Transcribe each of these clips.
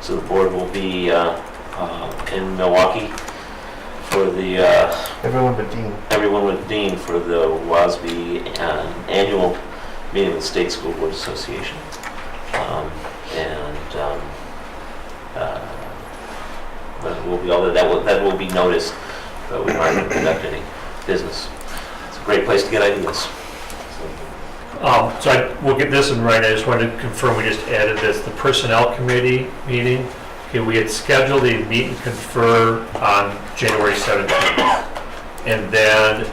So the board will be uh, uh, in Milwaukee for the, uh, Everyone but Dean. everyone with Dean for the WASB uh, annual meeting of the State School Board Association. Um, And um, uh, that will be, all that will, that will be noticed, but we're not going to conduct any business. It's a great place to get ideas. Um, So I, we'll get this in writing, I just wanted to confirm, we just added this, the Personnel Committee meeting. Okay, we had scheduled a meet and confer on January 17th. And then,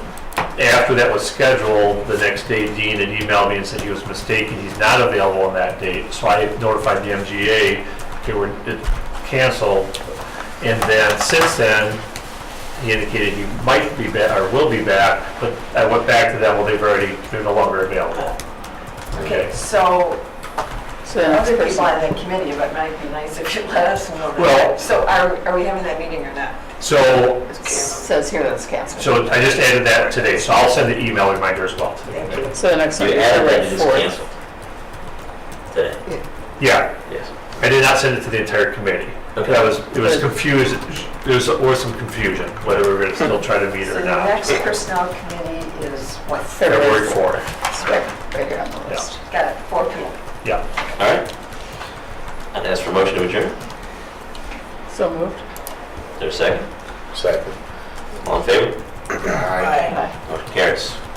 after that was scheduled, the next day Dean had emailed me and said he was mistaken, he's not available on that date. So I notified the MGA, okay, we're, it canceled. And then, since then, he indicated he might be back, or will be back, but I went back to them, well, they've already, they're no longer available. Okay. So, So the next other people person. on that committee, but it might be nice if you let us know. that. Well- So are, are we having that meeting or not? So, Says here that's canceled. so I just added that today, so I'll send an email reminder as well Thank today. you. So the next You one is added that it February is 4th. canceled. Today, Yeah, yes. I did not send it to the entire committee. That was, it was Good. confused, there was, was some confusion, whether we were gonna still try to meet So or the not. next personnel committee is what, February fourth, It's right right here on the list. got it, four people. yeah. All right. I'd ask for a motion to adjourn. Is So moved. there a second? Second. All in favor? Aye. Motion carries.